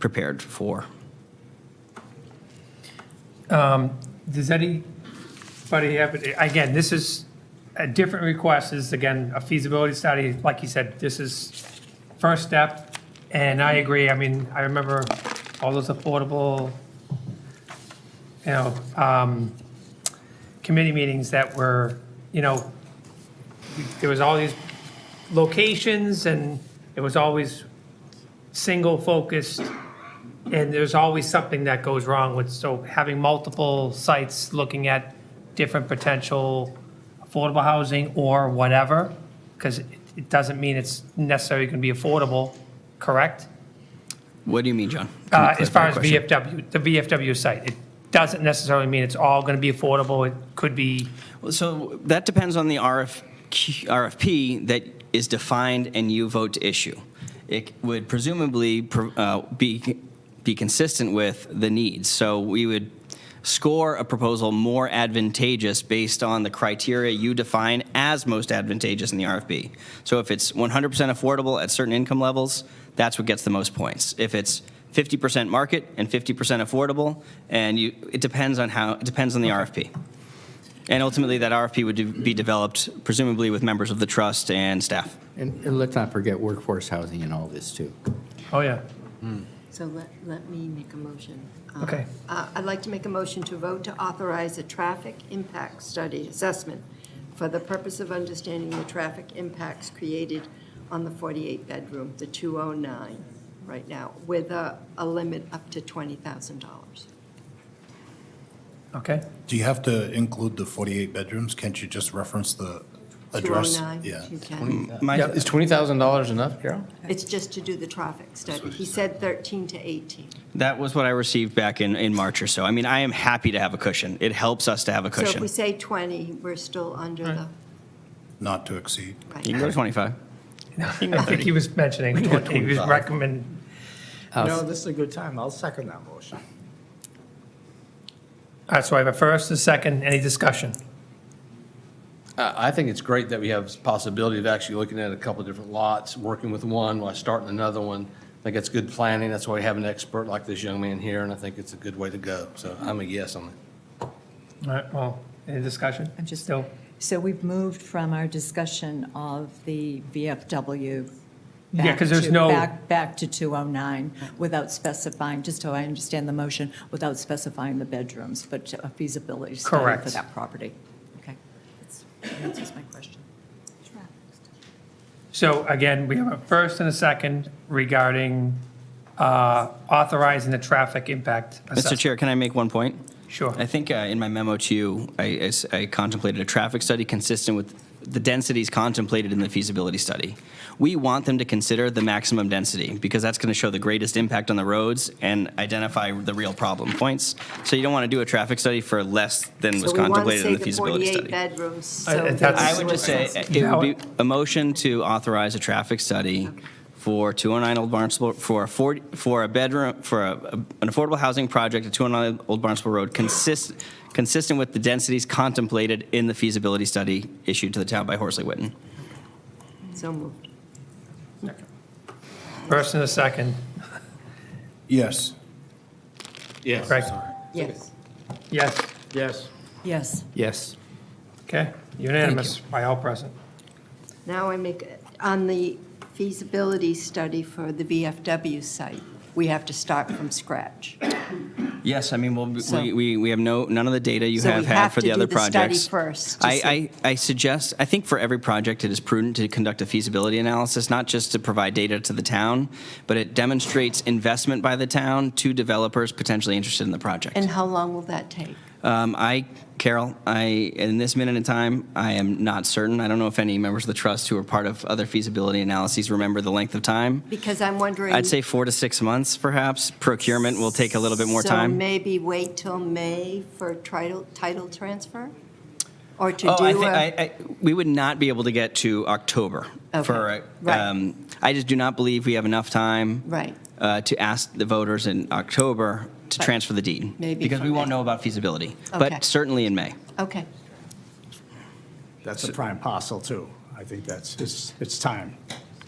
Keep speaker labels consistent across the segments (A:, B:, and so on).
A: prepared for.
B: Does anybody have, again, this is a different request, This is again, a feasibility study, like you said, this is first step, and I agree, I mean, I remember all those affordable, you know, um, committee meetings that were, you know, there was all these locations, and it was always single-focused, and there's always something that goes wrong with, so having multiple sites looking at different potential affordable housing or whatever, because it doesn't mean it's necessarily going to be affordable, correct?
A: What do you mean, John? Can you
B: Uh, As
A: clarify
B: far
A: the
B: as
A: question?
B: VFW, the VFW site, it doesn't necessarily mean it's all going to be affordable. It could be,
A: Well, So that depends on the RFQ, RFP that is defined and you vote to issue. It would presumably pro- uh, be, be consistent with the needs. So we would score a proposal more advantageous based on the criteria you define as most advantageous in the RFP. So if it's 100% affordable at certain income levels, that's what gets the most points. If it's 50% market and 50% affordable, and you, it depends on how, it depends on the RFP. And ultimately, that RFP would de- be developed presumably with members of the trust and staff.
C: And, and let's not forget workforce housing and all this too.
B: oh, yeah,
D: So let, let me make a motion. Uh,
B: Okay.
D: uh, I'd like to make a motion to vote to authorize a traffic impact study assessment for the purpose of understanding the traffic impacts created on the 48-bedroom, the 209 right now, with a, a limit up to $20,000.
B: okay.
E: Do you have to include the 48 bedrooms? Can't you just reference the address?
D: 209,
E: Yeah.
D: you can.
A: My,
C: Is twenty thousand dollars enough, Carol?
D: It's just to do the traffic study. He said 13 to 18.
A: that was what I received back in, in March or so. I mean, I am happy to have a cushion. It helps us to have a
D: So if
A: cushion.
D: we say 20, we're still under the,
E: Not to exceed.
D: right.
A: You can go to 25.
B: I think he was mentioning, he was recommending
C: No,
F: this is a good time. I'll second that motion.
B: All right, so I have a first, a second, any discussion?
F: I, I think it's great that we have possibility of actually looking at a couple of different lots, working with one while starting another one. I think it's good planning. That's why we have an expert like this young man here, and I think it's a good way to go. So I'm a yes on it.
B: All right, well, any discussion?
G: I'm just-
B: Still,
G: So we've moved from our discussion of the VFW.
B: Yeah,
G: back
B: 'cause there's
G: to-
B: no-
G: Back, back to 209 without specifying, just so I understand the motion, without specifying the bedrooms, but a feasibility study
B: Correct.
G: for that property. Okay. That's- That answers my question.
B: so again, we have a first and a second regarding uh, authorizing the traffic impact
A: Mr.
B: assessment.
A: Chair, can I make one point?
B: Sure.
A: I think uh, in my memo to you, I- I, s- I contemplated a traffic study consistent with the densities contemplated in the feasibility study. We want them to consider the maximum density because that's going to show the greatest impact on the roads and identify the real problem points. So you don't want to do a traffic study for less than was
D: So we want to
A: contemplated
D: say
A: in the
D: the
A: feasibility
D: 48
A: study.
D: bedrooms,
B: I-
D: so.
B: that's-
A: I would just say, it would be a motion to authorize a traffic study for 209 Old Barnstable, for a 40, for a bedroom, for a- an affordable housing project at 209 Old Barnstable Road, consist, consistent with the densities contemplated in the feasibility study issued to the town by Horsley Witten.
D: So moved.
B: First and a second,
E: Yes.
F: Yes.
B: correct?
D: Yes.
B: Yes,
F: Yes.
G: Yes.
C: Yes.
B: okay, unanimous by all present.
D: Now I make, on the feasibility study for the VFW site, we have to start from scratch.
A: Yes, I mean, we'll be-
D: So-
A: we, we, we have no, none of the data you
D: So we
A: have had
D: have
A: for the
D: to do
A: other
D: the study
A: projects.
D: first to
A: I, I, I suggest, I think for every project, it is prudent to conduct a feasibility analysis, not just to provide data to the town, but it demonstrates investment by the town to developers potentially interested in the project.
D: And how long will that take?
A: Um, I, Carol, I, in this minute in time, I am not certain. I don't know if any members of the trust who are part of other feasibility analyses remember the length of time.
D: Because I'm wondering.
A: I'd say four to six months, perhaps. Procurement will take a little bit more
D: So
A: time.
D: maybe wait till May for title, title transfer? Or to do
A: Oh,
D: a.
A: I think, I, I, we would not be able to get to October
D: Okay,
A: for,
D: right.
A: um, I just do not believe we have enough time.
D: Right.
A: Uh, to ask the voters in October to
D: But
A: transfer the deed.
D: maybe
A: Because
D: for
A: we won't
D: May.
A: know about feasibility,
D: Okay.
A: but certainly in May.
D: Okay,
H: That's a prime parcel, too. I think that's, it's, it's time.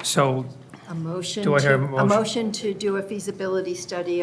B: So
D: A motion.
B: Do I hear a
D: to-
B: motion?
D: motion to do a feasibility study